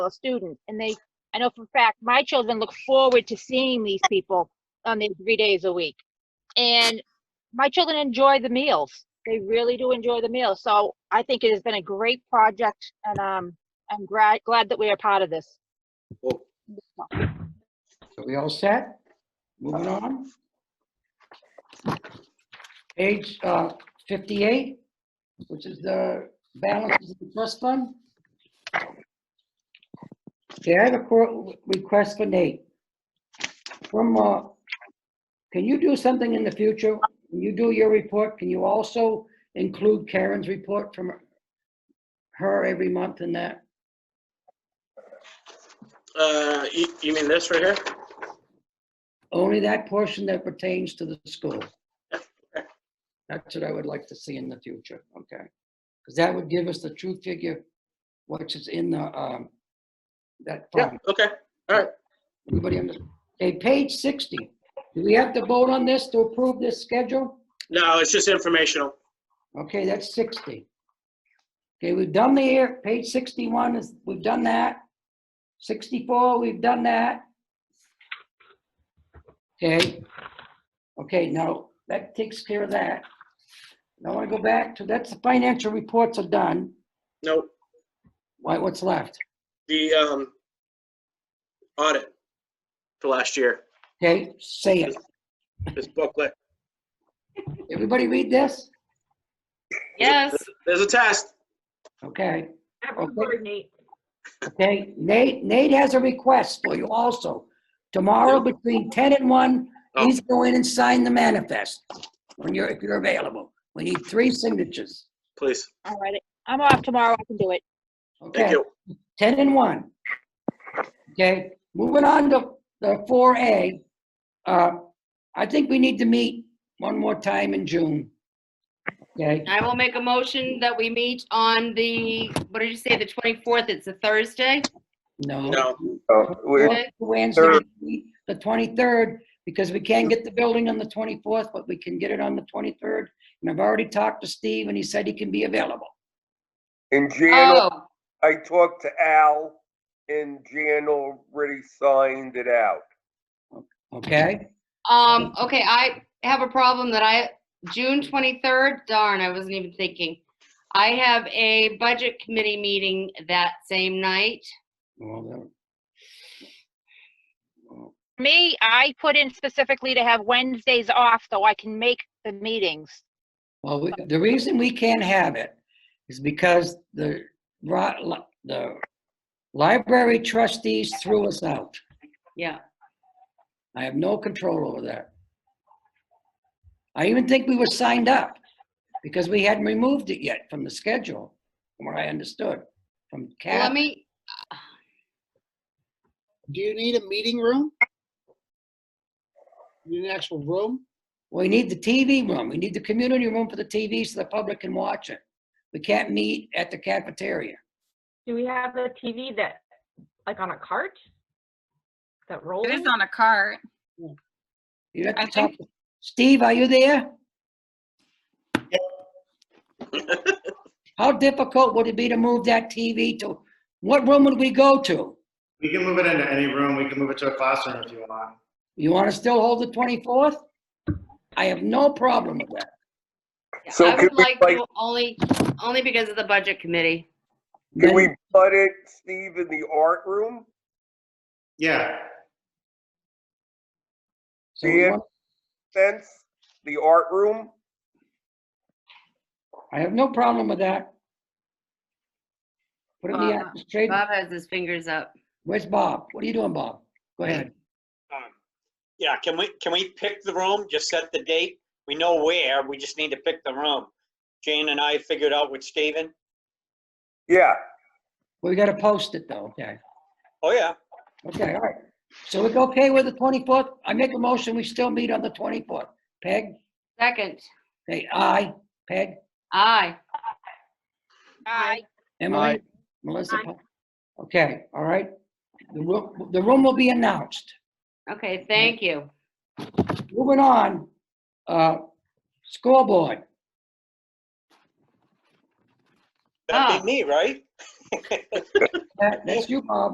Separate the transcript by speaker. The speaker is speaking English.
Speaker 1: students. And they, I know for a fact, my children look forward to seeing these people on these three days a week. And my children enjoy the meals. They really do enjoy the meals. So I think it has been a great project and um, I'm glad, glad that we are part of this.
Speaker 2: Cool. So we all set? Moving on. Page uh, 58, which is the balance of the trust fund. Okay, I have a cor- request for Nate. From, uh, can you do something in the future? When you do your report, can you also include Karen's report from her every month in that?
Speaker 3: Uh, you, you mean this right here?
Speaker 2: Only that portion that pertains to the school. That's what I would like to see in the future, okay? Because that would give us the true figure, which is in the, um, that fund.
Speaker 3: Okay.
Speaker 2: Everybody understand? Okay, page 60. Do we have to vote on this to approve this schedule?
Speaker 3: No, it's just informational.
Speaker 2: Okay, that's 60. Okay, we've done the air, page 61 is, we've done that. 64, we've done that. Okay. Okay, now, that takes care of that. Now I want to go back to, that's the financial reports are done.
Speaker 3: No,
Speaker 2: Why, what's left?
Speaker 3: the, um, audit for last year,
Speaker 2: Okay, say it.
Speaker 3: this booklet.
Speaker 2: Everybody read this?
Speaker 4: Yes,
Speaker 3: There's a test.
Speaker 2: Okay,
Speaker 5: After
Speaker 2: Okay.
Speaker 5: board, Nate.
Speaker 2: okay. Nate, Nate has a request for you also. Tomorrow between 10 and 1,
Speaker 3: Oh.
Speaker 2: He's going and sign the manifest when you're, if you're available. We need three signatures.
Speaker 3: Please.
Speaker 1: All right, I'm off tomorrow. I can do it.
Speaker 3: Thank
Speaker 2: Okay,
Speaker 3: you.
Speaker 2: 10 and 1. Okay, moving on to the 4A. Uh, I think we need to meet one more time in June. Okay,
Speaker 4: I will make a motion that we meet on the, what did you say, the 24th? It's a Thursday?
Speaker 2: no.
Speaker 3: No.
Speaker 6: Oh, we're,
Speaker 4: Okay.
Speaker 2: Wednesday, the 23rd, because we can't get the building on the 24th, but we can get it on the 23rd. And I've already talked to Steve and he said he can be available.
Speaker 6: and Jan,
Speaker 4: Oh,
Speaker 6: I talked to Al, and Jan already signed it out.
Speaker 2: Okay,
Speaker 4: um, okay, I have a problem that I, June 23rd, darn, I wasn't even thinking. I have a budget committee meeting that same night.
Speaker 2: well, then.
Speaker 1: For me, I put in specifically to have Wednesdays off, though I can make the meetings.
Speaker 2: Well, we- the reason we can't have it is because the, ri- li- the library trustees threw us out.
Speaker 4: Yeah,
Speaker 2: I have no control over that. I even think we were signed up because we hadn't removed it yet from the schedule, from what I understood, from
Speaker 4: Well,
Speaker 2: Cat.
Speaker 4: let me,
Speaker 7: Do you need a meeting room? You Need an actual room?
Speaker 2: We need the TV room. We need the community room for the TV so the public can watch it. We can't meet at the cafeteria.
Speaker 5: Do we have a TV that, like on a cart? That rolls?
Speaker 8: It is on a cart.
Speaker 2: You have
Speaker 8: I
Speaker 2: to talk.
Speaker 8: think-
Speaker 2: Steve, are you there? How difficult would it be to move that TV to, what room would we go to?
Speaker 9: We can move it into any room. We can move it to a classroom if you want.
Speaker 2: You want to still hold the 24th? I have no problem with that.
Speaker 6: So
Speaker 4: I
Speaker 6: can
Speaker 4: would
Speaker 6: we,
Speaker 4: like,
Speaker 6: like-
Speaker 4: to only, only because of the budget committee.
Speaker 6: Can
Speaker 2: Then-
Speaker 6: we put it, Steve, in the art room?
Speaker 9: Yeah,
Speaker 2: so we
Speaker 6: Yeah.
Speaker 2: want-
Speaker 6: Sense, the art room?
Speaker 2: I have no problem with that. Put it in the
Speaker 4: Bob-
Speaker 2: administrative-
Speaker 4: Bob has his fingers up.
Speaker 2: where's Bob? What are you doing, Bob? Go ahead.
Speaker 3: Um, Yeah, can we, can we pick the room? Just set the date? We know where, we just need to pick the room. Jane and I figured out with Steven.
Speaker 6: Yeah,
Speaker 2: We gotta post it though, okay?
Speaker 3: Oh, yeah.
Speaker 2: Okay, all right. So it's okay with the 24th? I make a motion, we still meet on the 24th. Peg?
Speaker 4: Second,
Speaker 2: Hey, aye. Peg?
Speaker 4: aye.
Speaker 1: I
Speaker 2: Emily? Melissa? Okay, all right. The room, the room will be announced.
Speaker 4: Okay, thank you.
Speaker 2: Moving on, uh, scoreboard.
Speaker 3: That'd be me, right?
Speaker 2: That- That's you, Bob.